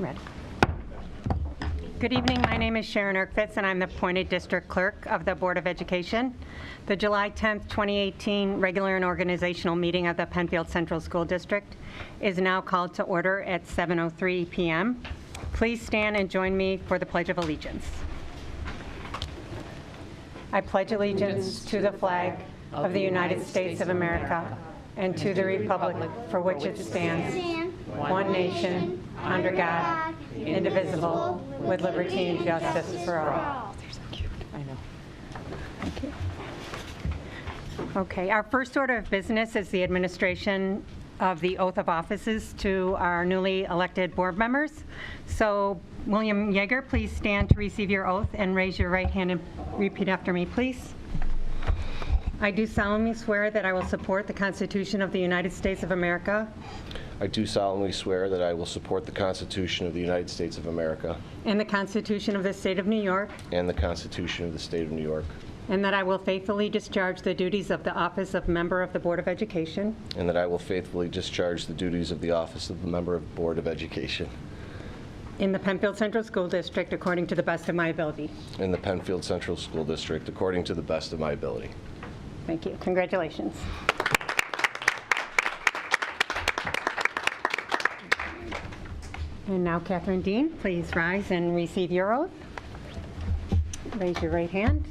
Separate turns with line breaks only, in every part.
Read. Good evening, my name is Sharon Erkfitz, and I'm the appointed district clerk of the Board of Education. The July 10th, 2018 regular and organizational meeting of the Penfield Central School District is now called to order at 7:03 PM. Please stand and join me for the Pledge of Allegiance. I pledge allegiance to the flag of the United States of America and to the republic for which it stands, one nation, under God, indivisible, with liberty and justice for all. Okay, our first order of business is the administration of the oath of offices to our newly elected board members. So William Yeager, please stand to receive your oath and raise your right hand and repeat after me, please. I do solemnly swear that I will support the Constitution of the United States of America
I do solemnly swear that I will support the Constitution of the United States of America
and the Constitution of the State of New York,
and the Constitution of the State of New York,
and that I will faithfully discharge the duties of the office of member of the Board of Education
and that I will faithfully discharge the duties of the office of the Member of Board of Education
in the Penfield Central School District according to the best of my ability.
in the Penfield Central School District according to the best of my ability.
Thank you. Congratulations. And now Catherine Dean, please rise and receive your oath. Raise your right hand.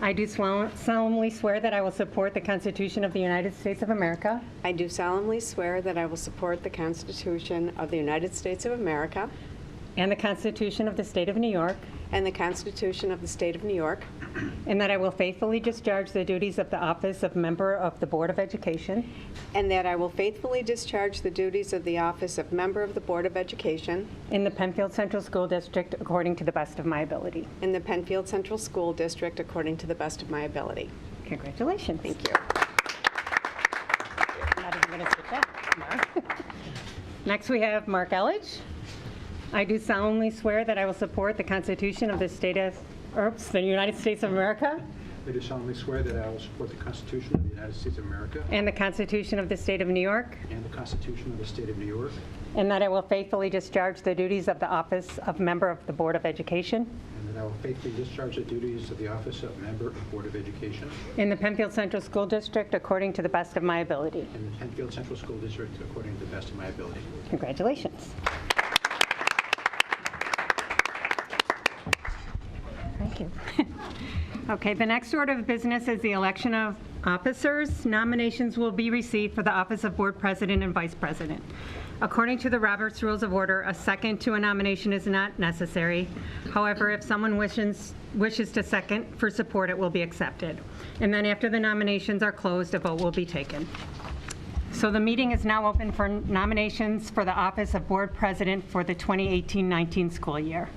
I do swel- solemnly swear that I will support the Constitution of the United States of America
I do solemnly swear that I will support the Constitution of the United States of America
and the Constitution of the State of New York,
and the Constitution of the State of New York,
and that I will faithfully discharge the duties of the office of member of the Board of Education
and that I will faithfully discharge the duties of the office of Member of the Board of Education
in the Penfield Central School District according to the best of my ability.
in the Penfield Central School District according to the best of my ability.
Congratulations.
Thank you.
Not even gonna sit back, Mark. Next, we have Mark Elledge. I do solemnly swear that I will support the Constitution of the State of, oops, the United States of America
I do solemnly swear that I will support the Constitution of the United States of America
and the Constitution of the State of New York,
and the Constitution of the State of New York,
and that I will faithfully discharge the duties of the office of member of the Board of Education
and that I will faithfully discharge the duties of the office of Member of Board of Education
in the Penfield Central School District according to the best of my ability.
in the Penfield Central School District according to the best of my ability.
Congratulations. Thank you. Okay, the next order of business is the election of officers. Nominations will be received for the office of Board President and Vice President. According to the Roberts Rules of Order, a second to a nomination is not necessary. However, if someone wishes, wishes to second for support, it will be accepted. And then after the nominations are closed, a vote will be taken. So the meeting is now open for nominations for the office of Board President for the 2018-19 school year.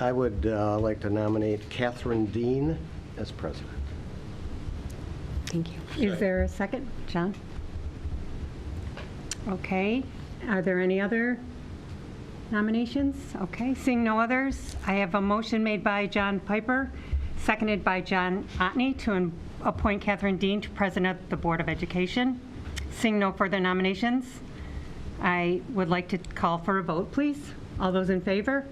I would uh, like to nominate Catherine Dean as president.
Thank you. Is there a second, John? Okay, are there any other nominations? Okay, seeing no others, I have a motion made by John Piper, seconded by John Otney to em- appoint Catherine Dean to President of the Board of Education. Seeing no further nominations, I would like to call for a vote, please. All those in favor?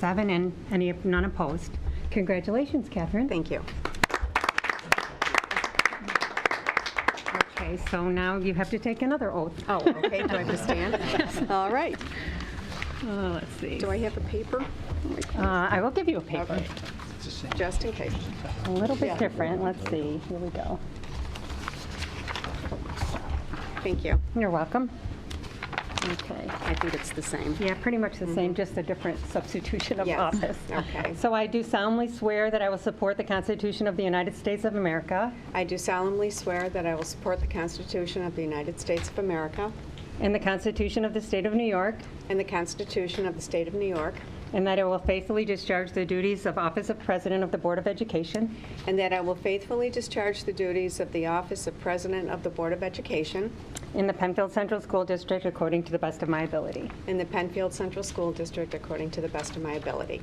Seven and any, none opposed. Congratulations, Catherine.
Thank you.
Okay, so now you have to take another oath.
Oh, okay, do I have to stand? All right.
Uh, Let's see.
Do I have a paper?
Uh, I will give you a paper,
Okay, Just in case.
a little bit different. Let's see, here we go.
Thank you.
You're welcome. Okay.
I think it's the same.
Yeah, pretty much the same, just a different substitution of
Yes,
office.
okay.
So I do solemnly swear that I will support the Constitution of the United States of America
I do solemnly swear that I will support the Constitution of the United States of America
and the Constitution of the State of New York,
and the Constitution of the State of New York,
and that I will faithfully discharge the duties of Office of President of the Board of Education
and that I will faithfully discharge the duties of the office of President of the Board of Education
in the Penfield Central School District according to the best of my ability.
in the Penfield Central School District according to the best of my ability.